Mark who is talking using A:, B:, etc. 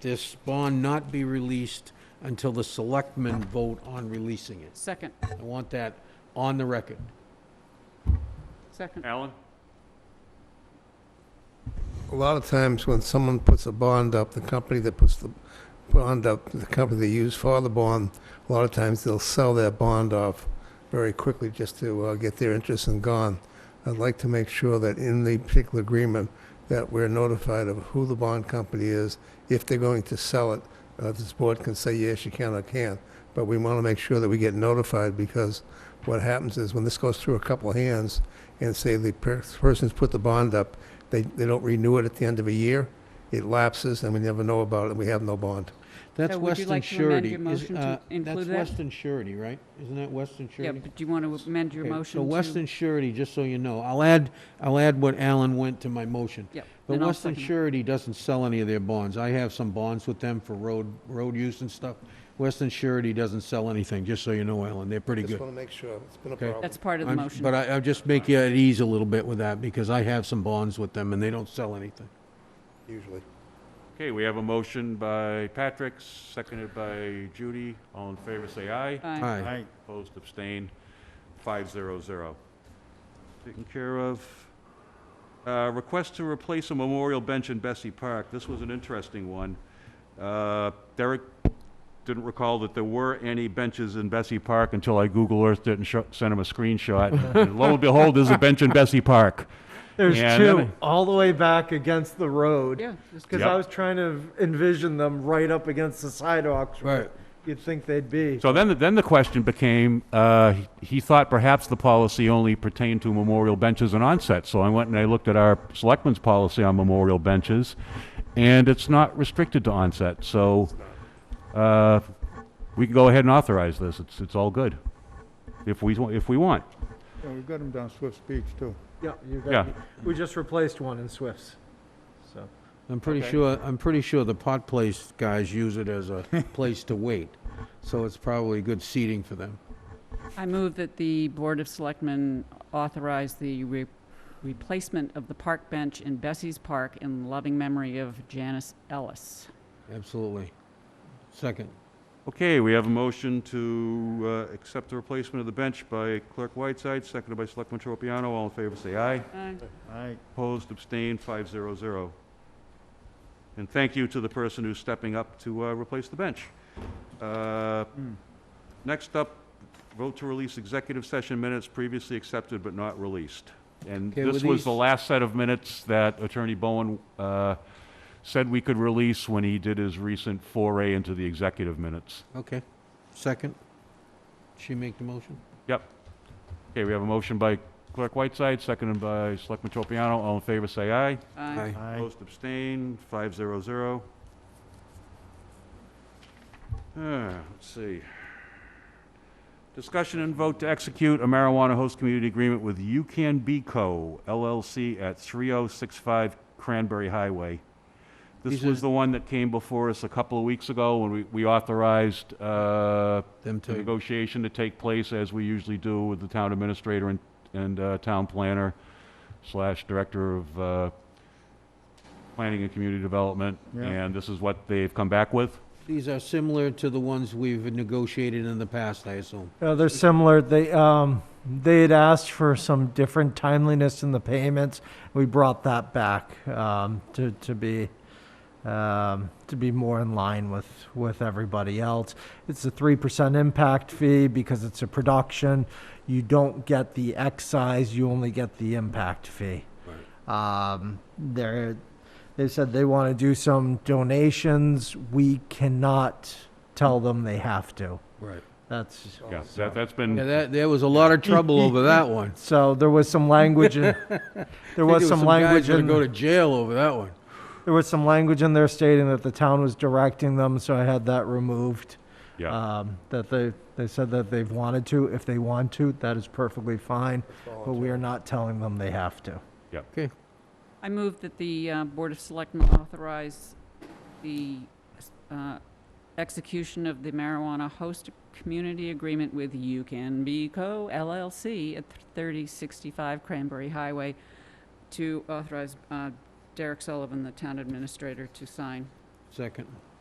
A: this bond not be released until the selectmen vote on releasing it.
B: Second,
A: I want that on the record.
B: second.
C: Alan?
D: A lot of times when someone puts a bond up, the company that puts the bond up, the company they use for the bond, a lot of times they'll sell their bond off very quickly just to uh, get their interest and gone. I'd like to make sure that in the particular agreement that we're notified of who the bond company is, if they're going to sell it, uh, this board can say yes, you can or can't. But we want to make sure that we get notified because what happens is when this goes through a couple of hands and say the per- person's put the bond up, they, they don't renew it at the end of a year, it lapses, and we never know about it, and we have no bond.
A: That's
B: So would you
A: Western
B: like to amend
A: surety.
B: your
A: Is-
B: motion to
A: uh,
B: include that?
A: That's Western surety, right? Isn't that Western
B: Yeah,
A: surety?
B: but do you want to amend your
A: Okay,
B: motion
A: So
B: to?
A: Western surety, just so you know, I'll add, I'll add what Alan went to my motion.
B: Yep,
A: But
B: then I'll
A: Western
B: second it.
A: Surety doesn't sell any of their bonds. I have some bonds with them for road, road use and stuff. Western Surety doesn't sell anything, just so you know, Alan, they're pretty
D: Just
A: good.
D: want to make sure, it's been a
A: Okay.
D: problem.
B: That's part of the
A: I'm-
B: motion.
A: But I, I'll just make you at ease a little bit with that, because I have some bonds with them, and they don't sell anything.
D: Usually.
C: Okay, we have a motion by Patrick, seconded by Judy. All in favor, say aye.
B: Aye.
A: Aye.
C: Opposed, abstained, five zero zero. Taken care of. Uh, Request to replace a memorial bench in Bessie Park. This was an interesting one. Uh, Derek didn't recall that there were any benches in Bessie Park until I Google Earthed it and sho- sent him a screenshot. And Lo and behold, there's a bench in Bessie Park.
E: There's
C: Yeah,
E: two
C: that-
E: all the way back against the road.
B: Yeah, there's
E: Because
C: Yep.
E: I was trying to envision them right up against the sidewalks. where
A: Right.
E: You'd think they'd be.
C: So then, then the question became, uh, he- he thought perhaps the policy only pertained to memorial benches and onsets. So I went and I looked at our selectmen's policy on memorial benches, and it's not restricted to onset. So uh, we can go ahead and authorize this. It's, it's all good, if we, wa- if we want.
F: Yeah, we've got them down Swift's Beach, too.
E: Yeah, you got
C: Yeah.
E: me. We just replaced one in Swifts. So,
A: I'm pretty
C: Okay.
A: sure, I'm pretty sure the pot place guys use it as a place to wait, so it's probably good seating for them.
B: I move that the Board of Selectmen authorize the re- replacement of the park bench in Bessie's Park in loving memory of Janice Ellis.
A: Absolutely. Second.
C: Okay, we have a motion to uh, accept the replacement of the bench by Clerk Whiteside, seconded by Selectman Tropiano. All in favor, say aye.
B: Aye.
F: Aye.
C: Opposed, abstained, 500. And thank you to the person who's stepping up to uh, replace the bench. Uh, Next up, vote to release executive session minutes previously accepted but not released. And
A: Okay,
C: this
A: were
C: was the
A: these-
C: last set of minutes that Attorney Bowen uh, said we could release when he did his recent foray into the executive minutes.
A: Okay. Second. She make the motion?
C: Yep. Okay, we have a motion by Clerk Whiteside, seconded by Selectman Tropiano. All in favor, say aye.
B: Aye.
F: Aye.
C: Opposed, abstained, five zero zero. Ah, Let's see. Discussion and vote to execute a marijuana host community agreement with UCAN Beco LLC at 3065 Cranberry Highway. This
A: These are-
C: was the one that came before us a couple of weeks ago when we we authorized uh,
A: Them
C: the
A: two.
C: negotiation to take place as we usually do with the town administrator and, and uh, town planner slash director of uh, planning and community development.
F: Yeah.
C: And this is what they've come back with.
A: These are similar to the ones we've negotiated in the past, I assume.
E: Uh, they're similar. They, um, they had asked for some different timeliness in the payments. We brought that back, um, to, to be, um, to be more in line with, with everybody else. It's a three percent impact fee because it's a production. You don't get the excise, you only get the impact fee. Um, they're, they said they want to do some donations. We cannot tell them they have to.
A: Right.
E: That's.
D: Oh,
C: Yeah, that, that's been,
A: Yeah, that, there was a lot of trouble over that one.
E: So there was some language in, there was some language
A: Guys
E: in,
A: gonna go to jail over that one.
E: there was some language in there stating that the town was directing them, so I had that removed.
C: yeah.
E: Um, that they, they said that they've wanted to, if they want to, that is perfectly fine, but we are not telling them they have to.
A: Okay.
B: I move that the uh, Board of Selectmen authorize the uh, execution of the marijuana host community agreement with UCAN Co. LLC at 3065 Cranberry Highway to authorize uh, Derek Sullivan, the town administrator, to sign.
A: Second.